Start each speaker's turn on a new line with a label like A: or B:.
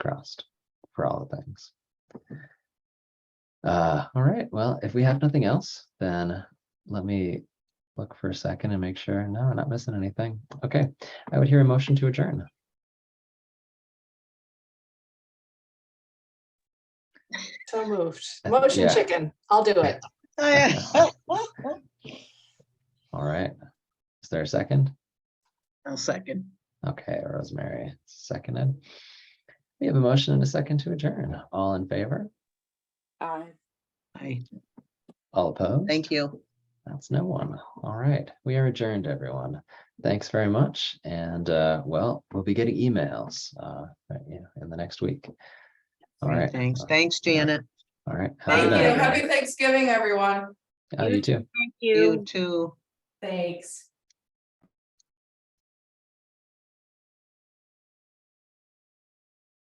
A: crossed for all the things. Uh, all right, well, if we have nothing else, then let me look for a second and make sure, no, I'm not missing anything. Okay, I would hear a motion to adjourn.
B: So moved.
A: Uh,
B: Motion
A: yeah.
B: chicken. I'll do it.
C: I-
A: All right, is there a second?
C: I'll second.
A: Okay, Rosemary, seconded. We have a motion and a second to adjourn. All in favor?
B: Aye.
C: Aye.
A: All opposed?
C: Thank you.
A: That's no one. All right. We are adjourned, everyone. Thanks very much. And uh, well, we'll be getting emails uh, right, you know, in the next week. All right.
C: Thanks, thanks, Janet.
A: All right. Have a
D: Thank
A: good
D: you.
A: night,
D: Happy Thanksgiving, everyone.
A: everyone. Oh, you too.
C: You too.
D: Thanks.